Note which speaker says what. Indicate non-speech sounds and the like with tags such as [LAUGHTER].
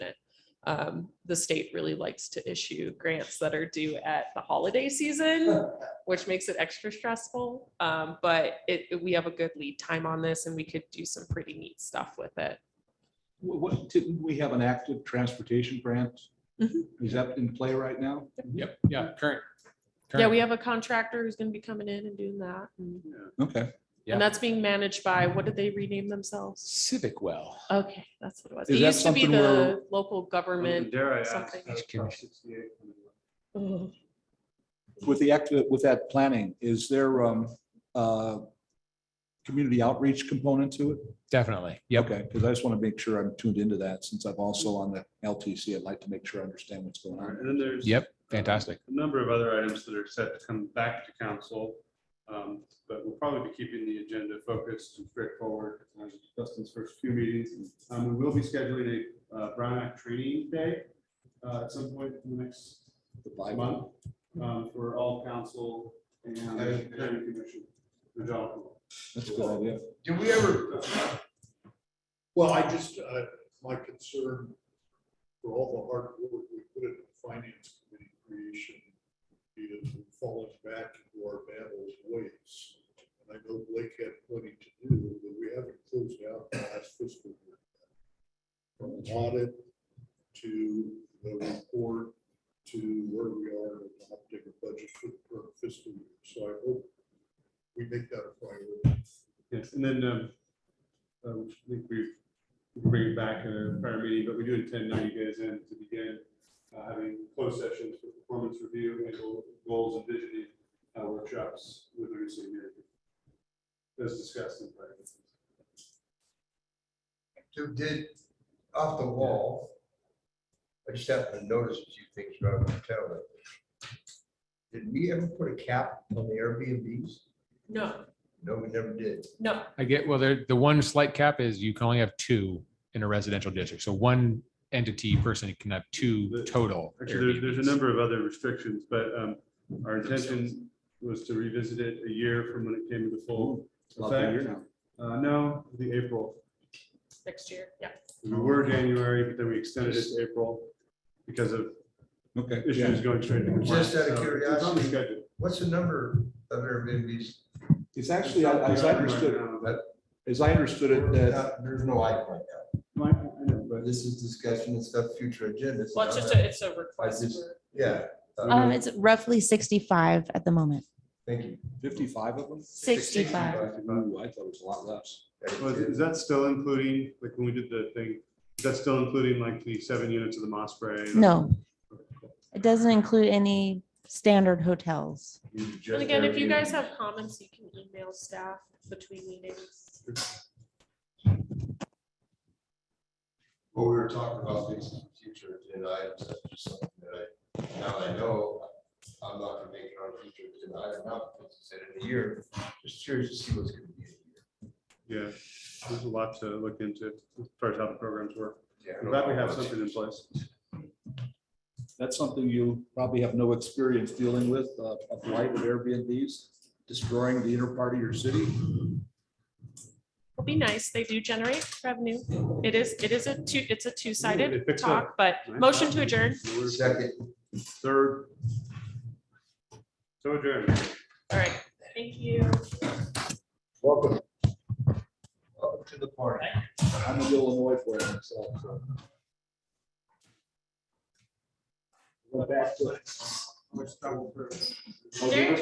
Speaker 1: um, the state really likes to issue grants that are due at the holiday [LAUGHS] season, which makes it extra stressful. Um, but it, we have a good lead time on this and we could do some pretty neat stuff with it.
Speaker 2: Wha- What, didn't we have an active transportation grant?
Speaker 1: Mhm.
Speaker 2: Is that in play right now?
Speaker 3: Yep, yeah, current.
Speaker 1: Yeah, we have a contractor who's gonna be coming in and doing that. And
Speaker 2: Okay.
Speaker 3: Yeah.
Speaker 1: and that's being managed by, what did they rename themselves?
Speaker 3: Civic well.
Speaker 1: Okay, that's what it was.
Speaker 2: Is
Speaker 1: It
Speaker 2: that
Speaker 1: used to be
Speaker 2: something where-
Speaker 1: the local government.
Speaker 4: Dare I ask?
Speaker 1: something.
Speaker 4: how it's
Speaker 3: Excuse me.
Speaker 4: cost 68
Speaker 1: Ugh.
Speaker 2: With the active, with that planning, is there, um, uh, community outreach component to it?
Speaker 3: Definitely. Yep.
Speaker 2: Okay, because I just want to make sure I'm tuned into that since I'm also on the LTC. I'd like to make sure I understand what's going
Speaker 4: All right,
Speaker 2: on.
Speaker 4: And then there's.
Speaker 3: Yep. Fantastic.
Speaker 4: A number of other items that are set to come back to council. um, But we'll probably be keeping the agenda focused and straightforward. on Dustin's first few meetings. Um, We will be scheduling a uh, Brown Act training day uh, at some point in the next
Speaker 2: The Bible.
Speaker 4: month um, for all council and planning commission. the job.
Speaker 2: That's a good idea.
Speaker 5: Do we ever? Well, I just, uh, my concern for all the hard work we put in the finance committee creation is we've fallen back into our bad old ways. And I know Blake had plenty to do, but we haven't closed out the last fiscal year. From audit to the report to where we are in adopting a budget for the current fiscal year. So I hope we make that a priority.
Speaker 4: Yes, and then, um, um, I think we we can bring it back at a prior meeting, but we do intend now you guys in to begin uh, having closed sessions for performance review and goal- goals and visioning uh, workshops with the city manager. As discussed in prior. meetings.
Speaker 6: to did off the wall. I just happened to notice a few things about the hotel. that- Did we ever put a cap on the Airbnbs?
Speaker 1: No,
Speaker 6: No, we never did.
Speaker 1: no,
Speaker 3: I get, well, there, the one slight cap is you can only have two in a residential district. So one entity person can have two total.
Speaker 4: Actually, there- there's a
Speaker 3: Airbnbs.
Speaker 4: number of other restrictions, but um, our intention was to revisit it a year from when it came into full
Speaker 2: Love to hear
Speaker 4: effect.
Speaker 2: now.
Speaker 4: Uh, No, the April.
Speaker 1: next year, yeah.
Speaker 4: We were January, but then we extended it to April because of
Speaker 2: Okay. yeah.
Speaker 4: issues going straight. into compliance.
Speaker 6: Just out of
Speaker 4: So, it's on the schedule.
Speaker 6: What's the number of Airbnbs?
Speaker 2: It's actually, as I understood, as I understood it, uh, that
Speaker 6: Not- Uh, There's no icon right now,
Speaker 4: Mike, I know, but
Speaker 6: but this is discussion and stuff, future agendas.
Speaker 1: Well, it's just a, it's a request.
Speaker 6: just-
Speaker 1: for-
Speaker 6: Yeah. uh,
Speaker 7: Um, it's roughly sixty-five at the moment.
Speaker 6: Thank you.
Speaker 2: fifty-five of them?
Speaker 7: 65.
Speaker 2: Ooh, I thought it was a lot less.
Speaker 4: Was- Is that still including, like, when we did the thing, is that still including like the seven units of the Moss Spray?
Speaker 7: No, it doesn't include any standard hotels.
Speaker 1: And again, if you guys have comments, you can email staff between meetings.
Speaker 6: What we were talking about things in the future, and I, that's just something that I, now I know, I'm not gonna make it on a future, and I don't know, because it's in a year, just curious to see what's gonna be. in a
Speaker 4: Yeah, there's a lot to look into as far as how the programs work.
Speaker 6: year.
Speaker 4: I'm glad we have something in place.
Speaker 2: That's something you probably have no experience dealing with, uh, of light with Airbnbs, destroying the inner part of your city.
Speaker 1: It'll be nice. They do generate revenue. It is, it is a two, it's a
Speaker 4: They
Speaker 1: two-sided
Speaker 4: fix
Speaker 1: talk, but motion to adjourn.
Speaker 6: Second.
Speaker 4: Third. So adjourned.
Speaker 1: All right, thank you.
Speaker 6: Welcome. Welcome to the party.
Speaker 2: I'm in Illinois for it myself, so. Went back to.
Speaker 1: There-